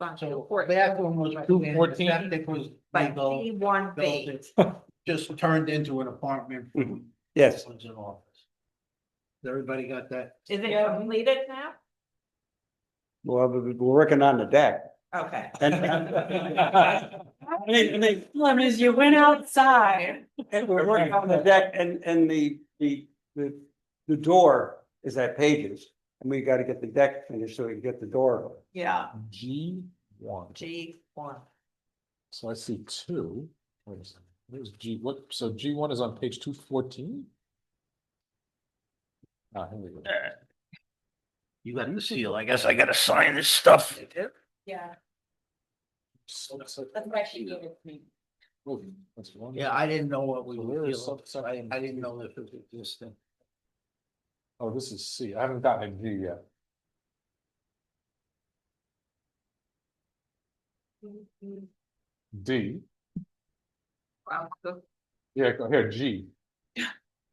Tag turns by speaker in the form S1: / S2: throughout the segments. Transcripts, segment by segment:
S1: gone to
S2: So
S1: court.
S2: that one was
S1: Right.
S2: two fourteen,
S3: 214.
S2: septic was
S1: But
S2: legal,
S1: C one
S2: building,
S1: B,
S2: just turned into an apartment.
S3: Mhm. Yes,
S2: Was an office. Everybody got that?
S1: is it completed now?
S3: well, we- we're working on the deck.
S1: Okay.
S3: And- I mean, I mean,
S4: Problem is you went outside.
S3: and we're working on the deck and, and the, the, the, the door is at Pages. And we gotta get the deck finished so we can get the door.
S4: Yeah,
S5: G one,
S1: G one.
S5: so I see two. Wait a second. Where's G, what, so G one is on page two fourteen? Ah, here we go.
S2: You got the seal, I guess I gotta sign this stuff.
S1: Yeah,
S5: So that's a-
S1: that's why she gave it to me.
S5: Oh, that's one.
S2: Yeah, I didn't know what we
S5: So
S2: were
S5: where is
S2: dealing, with. I,
S5: subsection
S2: I didn't know
S5: G?
S2: if it existed.
S5: Oh, this is C, I haven't gotten a G yet. D,
S1: Wow, so
S5: yeah, go here, G.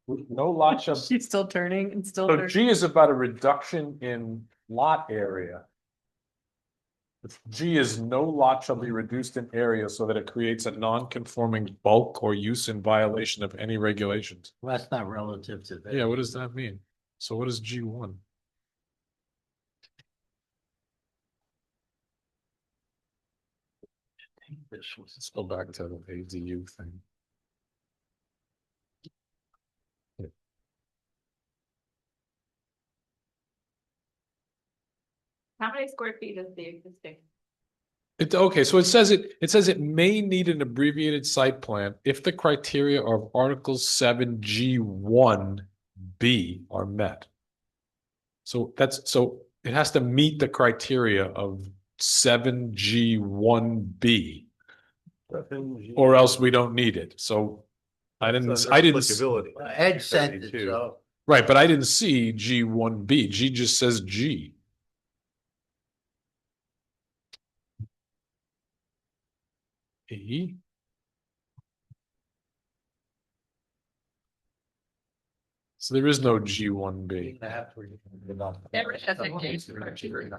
S5: With No lot shall
S4: she's still turning and still.
S5: So G is about a reduction in lot area. If G is no lot shall be reduced in area so that it creates a non-conforming bulk or use in violation of any regulations.
S2: Well, that's not relative to that.
S5: Yeah, what does that mean? So what is G one?
S2: This was.
S5: Let's go back to the ADU thing.
S1: How many square feet is the existing?
S5: It, okay, so it says it, it says it may need an abbreviated site plan if the criteria of Article seven G one B are met. So that's, so it has to meet the criteria of seven G one B, or else we don't need it, so. I didn't, I didn't, s-
S6: Applicability.
S2: Uh, Ed sent it, so.
S5: right, but I didn't see G one B, G just says G. E? So there is no G one B.
S1: There is nothing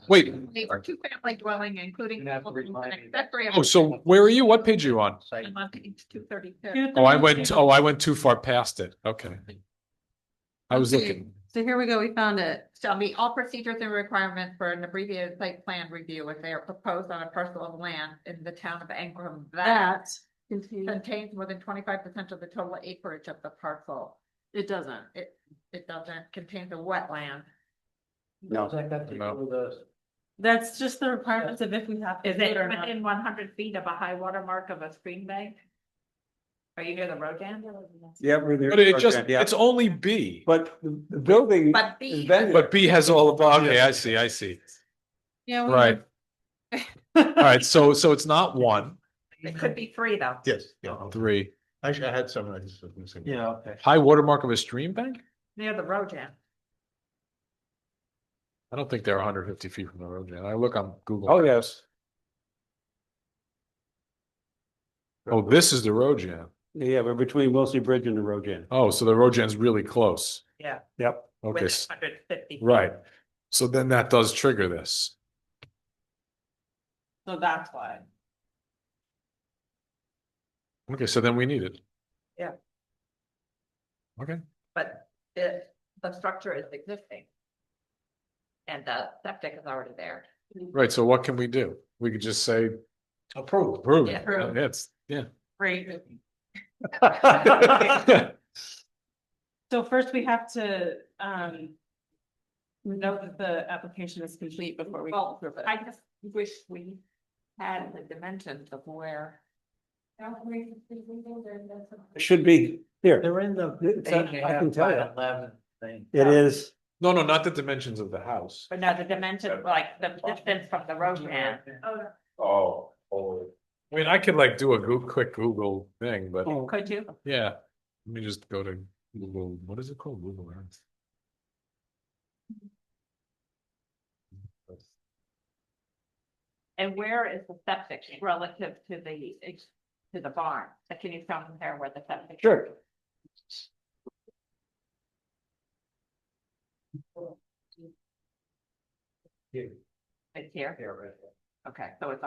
S5: Wait,
S1: Or two family dwelling, including.
S2: You have to remind me.
S1: accessory
S5: oh, so where are you? What page are you on?
S2: Site
S1: apartment On page two thirty-two.
S5: Oh, I went, oh, I went too far past it. Okay. I was
S4: Okay.
S5: looking,
S4: So here we go, we found it.
S1: shall meet all procedures and requirements for an abbreviated site plan review if they are proposed on a parcel of land in the town of Ingram that
S4: That. It
S1: contains more than twenty-five percent of the total acreage of the parcel.
S4: doesn't.
S1: It, it doesn't contain the wetland.
S3: No.
S2: Does that have to
S5: No.
S2: do with us?
S4: That's just the requirements of if we have. to
S1: Is
S4: do
S1: it
S4: or not.
S1: within one hundred feet of a high water mark of a stream bank? Are you near the road dam?
S3: Yeah, we're there.
S5: but it just,
S3: Yeah.
S5: it's only B,
S3: But the the building.
S1: But
S3: is
S1: B-
S3: vended.
S5: but B has all of, okay, I see, I see.
S4: Yeah. we-
S5: Right. All right, so, so it's not one,
S1: It could be three though.
S6: Yes, yeah,
S5: three.
S6: actually, I had some, I just was missing. one.
S2: Yeah, okay.
S5: High watermark of a stream bank?
S1: Near the road dam.
S5: I don't think they're hundred fifty feet from the road, Jan. I look on Google.
S3: Oh, yes.
S5: Oh, this is the road jam.
S3: Yeah, we're between Wilson Bridge and the Rogan.
S5: Oh, so the road jam's really close.
S1: Yeah.
S3: Yep.
S5: Okay, s-
S1: Hundred fifty.
S5: right. So then that does trigger this.
S4: So that's why.
S5: Okay, so then we need it.
S1: Yeah.
S5: Okay,
S1: But the, the structure is existing. And the septic is already there.
S5: right, so what can we do? We could just say
S2: Approved.
S5: approve.
S1: Yeah.
S4: Approve.
S5: That's, yeah.
S4: Great.
S5: Right,
S4: So first we have to, um. Know that the application is complete before we.
S1: Well,
S4: approve it.
S1: I just wish we had the dimensions of where.
S3: It Should be here.
S2: They're in the.
S3: It's
S2: eight
S3: a-
S2: and a
S3: I
S2: half
S3: can tell
S2: by
S3: you.
S2: Eleven thing.
S3: It is.
S5: no, no, not the dimensions of the house.
S1: But now the dimension, like the distance from the road man.
S5: Oh, oh. I mean, I could like do a Goo- quick Google thing, but.
S3: Oh,
S1: Could you?
S5: Yeah, let me just go to Google, what is it called, Google Earth?
S1: And where is the septic relative to the, ex- to the barn? Like, Can you tell me there where the septic?
S3: Sure.
S1: It's here?
S2: Here, right.
S1: Okay, so it's